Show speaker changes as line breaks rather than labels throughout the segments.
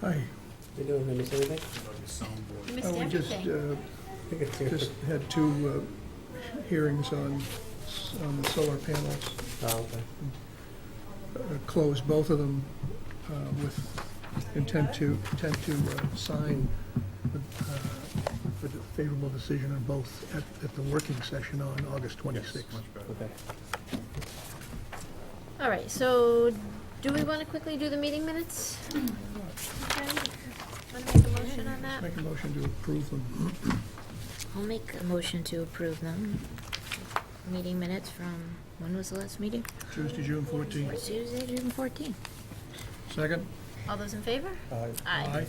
Hi,
You doing, did I miss anything?
You
Uh,
missed
we just,
everything.
uh, just had two uh, hearings on, s- on the solar panels.
Oh, okay.
Uh, Closed both of them uh, with intent to, intent to uh, sign the, uh, the favorable decision on both at, at the working session on August 26th.
Okay.
uh,
All right, so do we want to quickly do the meeting minutes? Want to make a motion on that?
Make a motion to approve them.
I'll make a motion to approve them. Meeting minutes from, when was the last meeting?
Tuesday, June 14th.
Tuesday, June fourteenth.
Second?
All those in favor?
Aye.
Aye.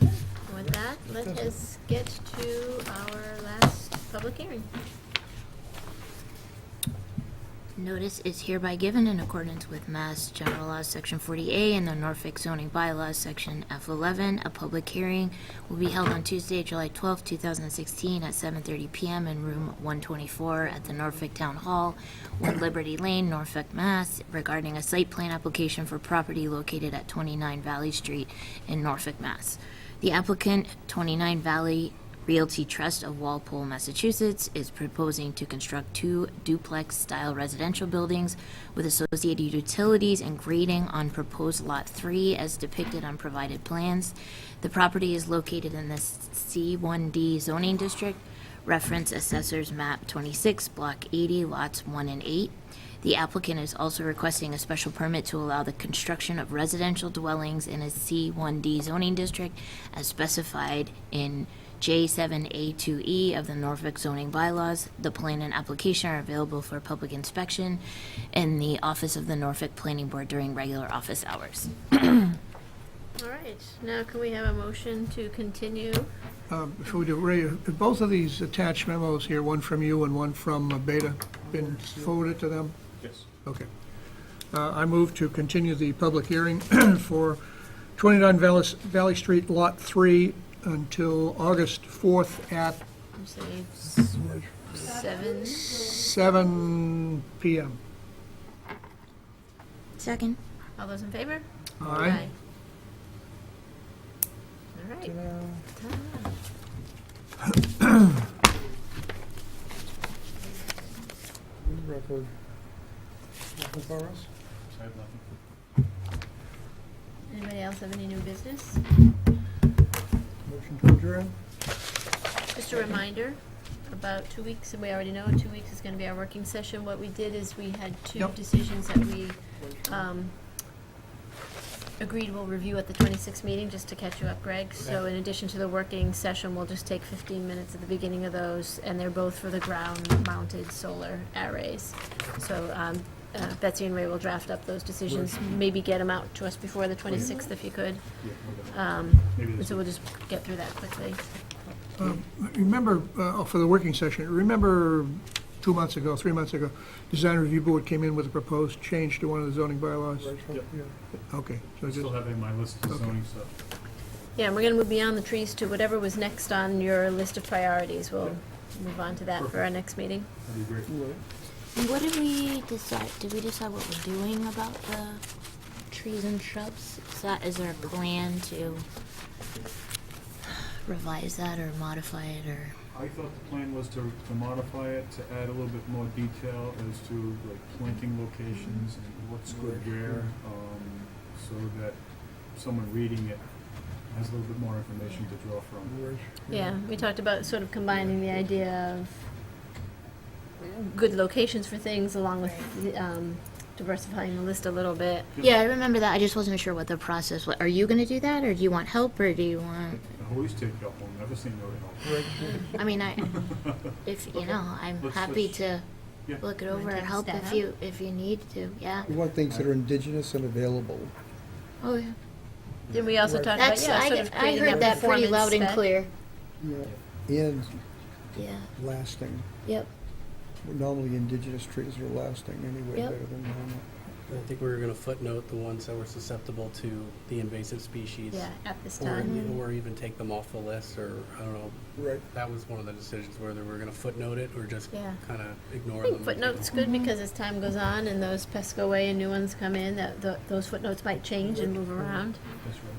And With that, let us get to our last public hearing.
Notice is hereby given in accordance with Mass General Laws, Section 40A, and the Norfolk zoning bylaws, Section F11. A public hearing will be held on Tuesday, July 12, 2016, at 7:30 PM in Room 124 at the Norfolk Town Hall, 1 Liberty Lane, Norfolk, Mass, regarding a site plan application for property located at 29 Valley Street in Norfolk, Mass. The applicant, 29 Valley Realty Trust of Walpole, Massachusetts, is proposing to construct two duplex-style residential buildings with associated utilities and grading on proposed Lot 3 as depicted on provided plans. The property is located in the C1D zoning district, reference Assessor's Map 26, Block 80, Lots 1 and 8. The applicant is also requesting a special permit to allow the construction of residential dwellings in a C1D zoning district as specified in J7A2E E of the Norfolk zoning bylaws. The plan and application are available for public inspection in the office of the Norfolk Planning Board during regular office hours.
All right, now can we have a motion to continue?
Um, Before we do, Ray, have both of these attached memos here, one from you and one from uh, Beta, been forwarded to them?
Yes.
Okay. Uh, I move to continue the public hearing for 29 Valley Valley Street, Lot 3, until August 4th at
Say s- Seven,
7 PM.
Second.
all those in favor?
Aye.
All right.
Record. Nothing for us?
I have nothing.
Anybody else have any new business?
Motion to adjourn?
Just a reminder, about two weeks, and we already know, in two weeks is gonna be our working session. What we did is we had two
Yep.
decisions that we, um, agreed we'll review at the twenty-sixth meeting, just to catch you up, Greg. So in addition to the working session, we'll just take fifteen minutes at the beginning of those, and they're both for the ground-mounted solar arrays. So, um, uh, Betsy and Ray will draft up those decisions, maybe get them out to us before the twenty-sixth if you could.
Yeah, we're done.
Um,
Maybe this
so we'll just get through that quickly.
Remember, uh, oh, for the working session, remember two months ago, three months ago, Design Review Board came in with a proposed change to one of the zoning bylaws?
Yep.
Okay, so
I
just,
still have it in my list of zoning stuff.
Yeah, and we're gonna move beyond the trees to whatever was next on your list of priorities. We'll move on to that for our next meeting.
That'd be great.
What did we decide, did we decide what we're doing about the trees and shrubs? Is that, is there a plan to revise that or modify it or?
I thought the plan was to, to modify it, to add a little bit more detail as to like planting locations and what's good where, um, so that someone reading it has a little bit more information to draw from.
Yeah, we talked about sort of combining the idea of good locations for things along with um, diversifying the list a little bit.
Yeah, I remember that. I just wasn't sure what the process was. Are you gonna do that or do you want help or do you want?
I always take help, I'll never say no to help.
I mean, I, if, you know, I'm
Let's-
happy
let's-
to
yeah.
look it
Wanna
over or
take a
help if
stab?
you, if you need to, yeah.
We want things that are indigenous and available.
Oh, yeah.
Then we also talked about,
That's,
yeah, sort
I,
of
I
creating
heard that pretty
performance
loud and
spec.
clear.
Yeah. And
Yeah,
lasting.
yep.
Normally indigenous trees are lasting anyway
Yep.
better than normal.
I think we were gonna footnote the ones that were susceptible to the invasive species.
Yeah, at this
Or,
time.
or even take them off the list, or, I don't know,
Right.
that was one of the decisions, whether we're gonna footnote it or just
Yeah.
kinda
I
ignore them.
think footnotes good
Mm-hmm.
because as time goes on and those pests go away and new ones come in, that tho- those footnotes might change and move around.
That's right.